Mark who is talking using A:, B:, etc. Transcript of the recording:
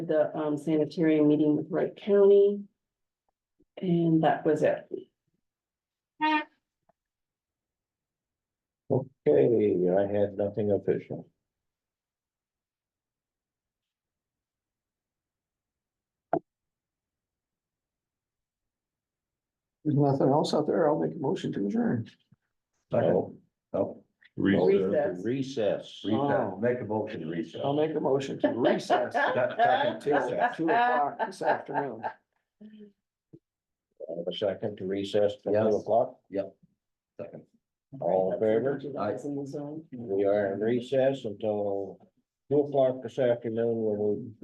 A: the um sanitarium meeting with Wright County. And that was it.
B: Okay, I had nothing official.
C: There's nothing else out there. I'll make a motion to adjourn.
B: Oh, oh,
A: Recess.
B: Recess.
C: Oh.
D: Make a motion to recess.
C: I'll make a motion to recess till two o'clock this afternoon.
B: Have A second to recess till
D: Yes.
B: two o'clock.
D: Second.
B: All in favor?
A: You guys in the zone.
B: We are in recess until two o'clock this afternoon when we